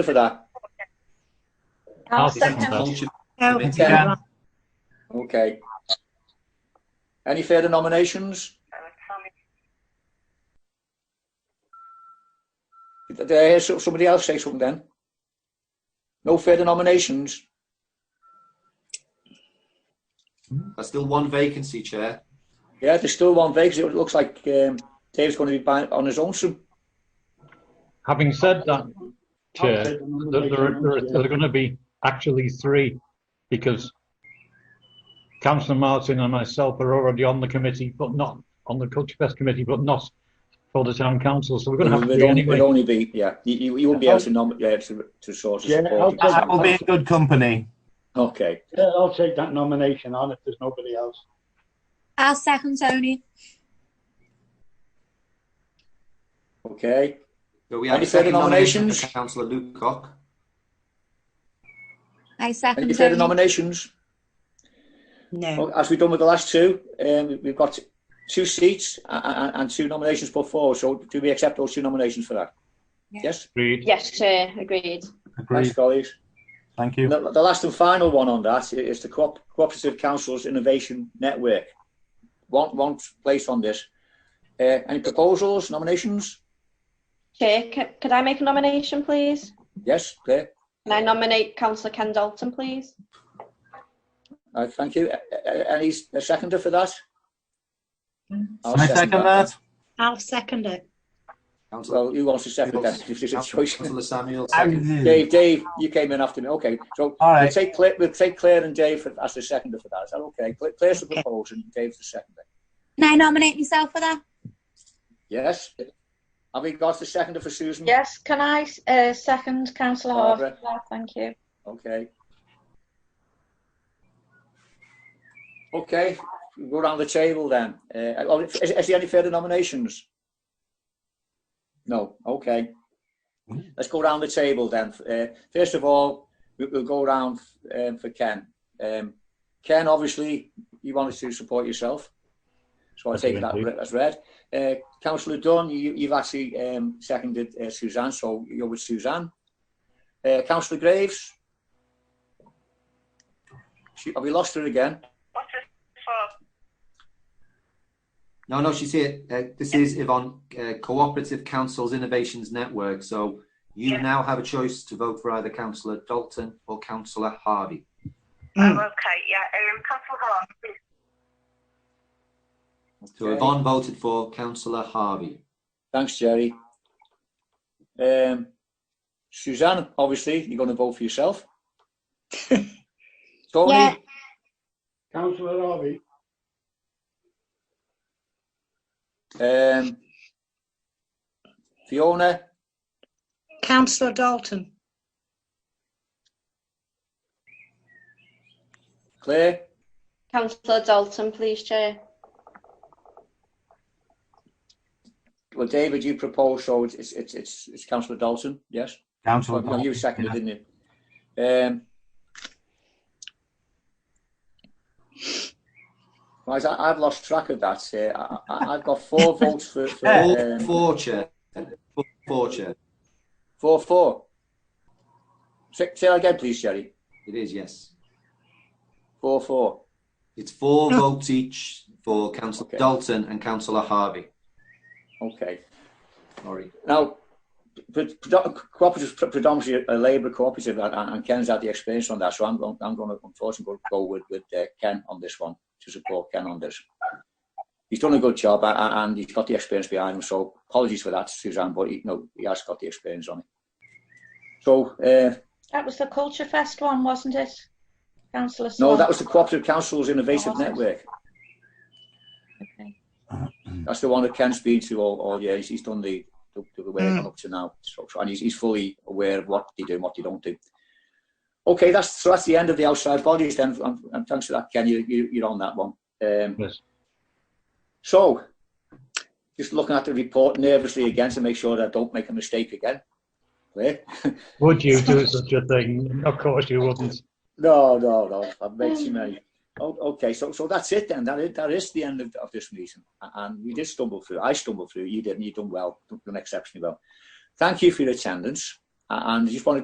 for that. I'll I'll second second. that. Oh, Yeah. Okay. Any further nominations? Did I hear Eh, so- somebody else say something then? No further nominations? There's still one vacancy, Chair. Yeah, there's still one vacancy. It looks like um, Dave's going to be by, on his own soon. Having said that, Chair, Okay, there, there, are, there, are, there are going to be actually three because Councillor Martin and myself are already on the committee, but not on the Culture Fest committee, but not for the town council. So we're going to have It'd three only- anyway. it'd only be, yeah, you, you, you won't be able to, nom- yeah, to, to sort of Yeah, support. I'll- That will be in good company. Okay. Yeah, I'll take that nomination on if there's nobody else. I'll second Tony. Okay. So we have Any a second further nomination for nominations? Councillor Lukecock. I Any second further Tony. nominations? No. Well, as we've done with the last two, um, we've got two seats and, and two nominations put forward. So do we accept those two nominations for that? Yeah. Yes. Agreed. Yes, Chair, agreed. Thanks, Agreed. colleagues. Thank The, you. the last and final one on that is the Co- Cooperative Councils Innovation Network. One, one place on this. Uh, any proposals, nominations? Chair, c- could I make a nomination, please? Yes, Claire. Can I nominate Councillor Ken Dalton, please? Uh, thank you. A- a- Any s- a seconder for that? I'll Mm. Can I second that? I'll second it. Councillor Well, who wants to second that? If there's a choice. Councillor Samuel, I second. Dave, Dave, you came in after me. Okay, so All we'll right. take Claire, we'll take Claire and Dave for- as the seconder for that. Is that okay? Cla- Claire's the Okay. proposal and Dave's the seconder. Can I nominate myself for that? Yes? Have we got the seconder for Susan? Yes, can I uh, second Councillor Barbara. Thank you. Okay. Okay, we'll go round the table then. Uh, oh, is, is there any further nominations? No, okay. Let's go round the table then. Uh, first of all, we, we'll go round um, for Ken. Um, Ken, obviously, you wanted to support yourself. So I That's take right, that indeed. re- as read. Uh, Councillor Dunn, you, you've actually um, seconded uh, Suzanne, so you're with Suzanne. Uh, Councillor Graves? She, have we lost her again? No, no, she's here. Uh, this is Yvonne, uh, Cooperative Councils Innovations Network. So you now have a choice to vote for either Councillor Dalton or Councillor Harvey. Oh, okay, yeah. Um, Councillor Hall, So Okay. Yvonne voted for Councillor Harvey. Thanks, Jerry. Um, Suzanne, obviously, you're going to vote for yourself. Tony, Yeah. Councillor Harvey, um, Fiona, Councillor Dalton. Claire, Councillor Dalton, please, Chair. well, David, you proposed, so it's, it's, it's, it's, it's Councillor Dalton, yes? Councillor. Well, you seconded, Yeah. didn't you? Um, right, I, I've lost track of that. Uh, I, I, I've got four votes for, for All um, four, Chair. All Four, Chair. Four four. Say, say that again, please, Jerry. It is, yes. Four four. It's four votes each for Councillor Okay. Dalton and Councillor Harvey. Okay. Sorry. Now, pre- predo- cooperative pre- predominantly a labour cooperative, and, and and Ken's had the experience on that, so I'm going. I'm going to unfortunately go- go with with uh, Ken on this one to support Ken on this. He's done a good job, a- a- and he's got the experience behind him. So apologies for that, Suzanne, but he, no, he has got the experience on it. So uh, That was the Culture Fest one, wasn't it? Councillor no, Swan. that was the Cooperative Council's Innovative Network. Okay. That's the one that Ken's been to all, all year. He's, he's done the, the, the work Mm. up to now. So, so- and he's, he's fully aware of what they do and what they don't do. Okay, that's so that's the end of the outside bodies then. And, and thanks for that, Ken. You, you, you're on that one. Um, Yes. So, just looking at the report nervously again to make sure that I don't make a mistake again. Clear? Would you do such a thing? Of course you wouldn't. No, no, no. I've made too many. Oh, okay, so so that's it then. That is, that is the end of, of this meeting. A- And we did stumble through. I stumbled through. You didn't. You done well. Done exceptionally well. Thank you for your attendance. A- And I just want to